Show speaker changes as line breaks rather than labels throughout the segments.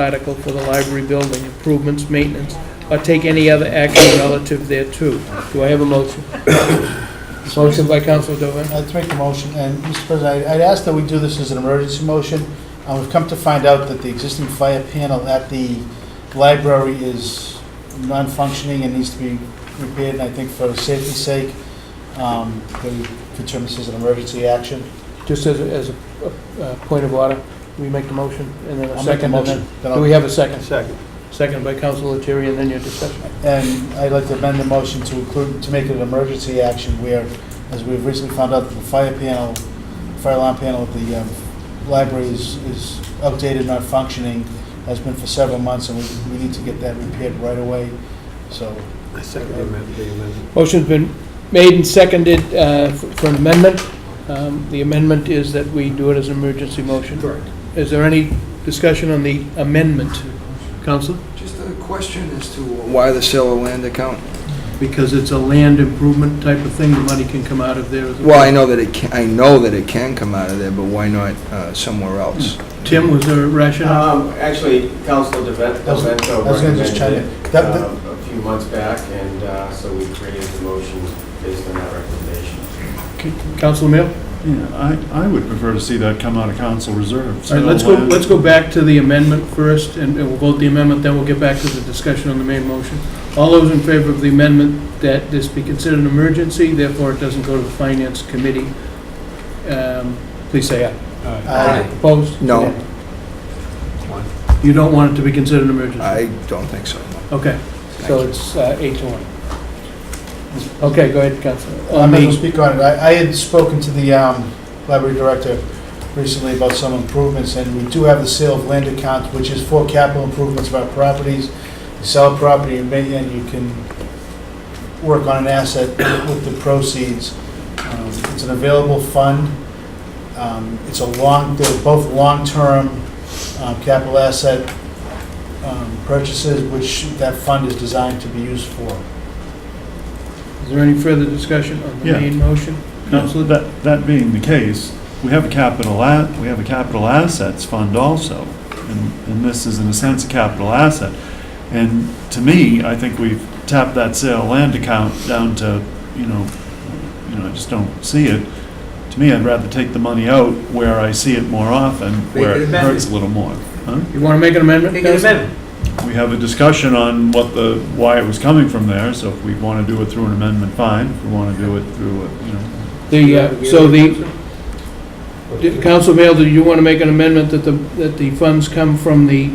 article for the library building improvements, maintenance, or take any other action relative thereto. Do I have a motion? Motion by Council Dwight.
I'd make the motion, and Mr. President, I- I'd ask that we do this as an emergency motion. Uh, We've come to find out that the existing fire panel at the library is non-functioning and needs to be repaired, and I think for safety's sake, um, that we could turn this as an emergency action.
Just as, a- as a, a, a point of order, we make the motion and then a
I'll make a
second. and then-
motion. then I'll-
Do we have a second?
Second.
Second by Council Leteri, and then your discussion.
And I'd like to amend the motion to include, to make it an emergency action where, as we've recently found out, that the fire panel, fire alarm panel at the um, library is is outdated, not functioning, has been for several months, and we we need to get that repaired right away. So
I second the amendment, the amendment.
Motion's been made and seconded uh, f- for an amendment. Um, The amendment is that we do it as an emergency motion.
Correct.
Is there any discussion on the amendment, Council?
Just a question as to why the sale of land account?
Because it's a land improvement type of thing, the money can come out of there. as
Well, I know that it can, I know that it can come out of there, but why not uh, somewhere else?
Tim, was there a rationale?
Um, actually, Council DeVento
I was- I was gonna just chime
recommended
in.
it
That- that-
um, a few months back, and uh, so we created the motion based on that recommendation.
Council Mill? All
Yeah, I, I would prefer to see that come out of council reserves.
right, let's go, let's go back to the amendment first, and and we'll vote the amendment, then we'll get back to the discussion on the main motion. All those in favor of the amendment, that this be considered an emergency, therefore it doesn't go to the Finance Committee, um, please say aye.
Aye.
Opposed?
No.
You don't want it to be considered an emergency?
I don't think so.
Okay, so it's uh, eight to one. Okay, go ahead, Council.
I'm not going to speak on it. I I had spoken to the um, library director recently about some improvements, and we do have the sale of land account, which is for capital improvements of our properties. You Sell a property, and may- and you can work on an asset with the proceeds. Um, It's an available fund. Um, It's a long, they're both long-term um, capital asset um, purchases, which that fund is designed to be used for.
Is there any further discussion on the
Yeah.
main motion?
Now, so uh, that, that being the case, we have a capital, a- we have a capital assets fund also, and, and this is in a sense a capital asset. And to me, I think we've tapped that sale land account down to, you know, you know, I just don't see it. To me, I'd rather take the money out where I see it more often, where it hurts a little more. Huh?
You want to make an amendment? Council?
We have a discussion on what the, why it was coming from there, so if we want to do it through an amendment, fine. If we want to do it through, a, you know,
The, uh, so the, did- Council Mail, do you want to make an amendment that the, that the funds come from the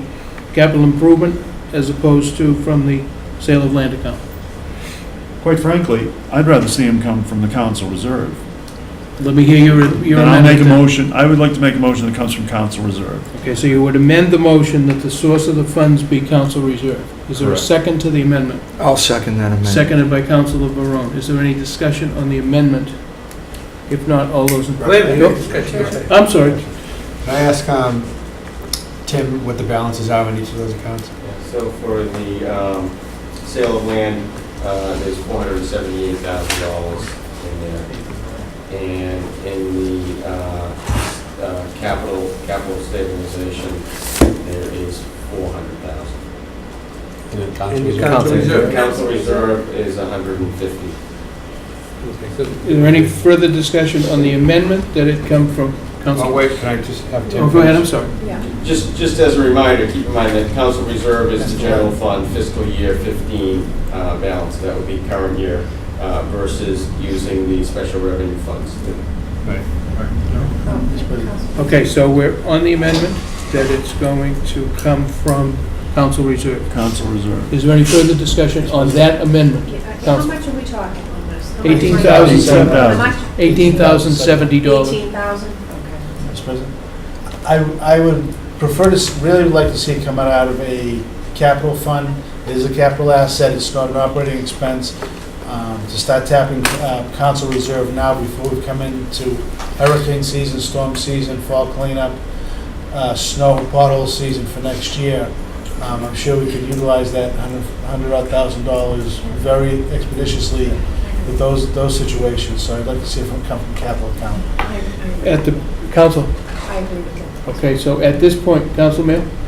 capital improvement as opposed to from the sale of land account?
quite frankly, I'd rather see him come from the council reserve.
Let me hear your, your
Then I'll make a
amendment.
motion, I would like to make a motion that comes from council reserve.
Okay, so you would amend the motion that the source of the funds be council reserve. Is there a
Correct.
second to the amendment?
I'll second that amendment.
Seconded by Councilor Barone. Is there any discussion on the amendment? If not, all those in...
Wait a minute.
Nope. I'm sorry.
Can I ask um, Tim what the balances are on each of those accounts?
So for the um, sale of land, uh, there's $478,000 in there. And in the uh, uh, capital, capital stabilization, there is $400,000.
Council reserve.
Council reserve is 150.
Is there any further discussion on the amendment that it come from
Oh,
Council?
wait, can I just have Tim?
Oh, go ahead, I'm
finish?
sorry.
Just, just as a reminder, keep in mind that council reserve is the general fund fiscal year 15 uh, balance. That would be current year uh, versus using the special revenue funds.
Okay, so we're on the amendment that it's going to come from council reserve.
Council reserve.
Is there any further discussion on that amendment?
How
Council.
much are we talking on this? How much money?
Eighteen thousand
Eighteen
seven,
How
thousand.
much?
eighteen thousand seventy dollars.
Eighteen thousand, okay.
Mr. President? I, I would prefer to, s- really would like to see it come out of a capital fund. It is a capital asset, it's not an operating expense. Um, To start tapping uh, council reserve now before we come into hurricane season, storm season, fall cleanup, uh, snow pothole season for next year. Um, I'm sure we could utilize that hundred odd thousand dollars very expeditiously with those, those situations. So I'd like to see if it come from capital account.
I- I-
At the, council,
I agree with that.
okay, so at this point, Council Mayor,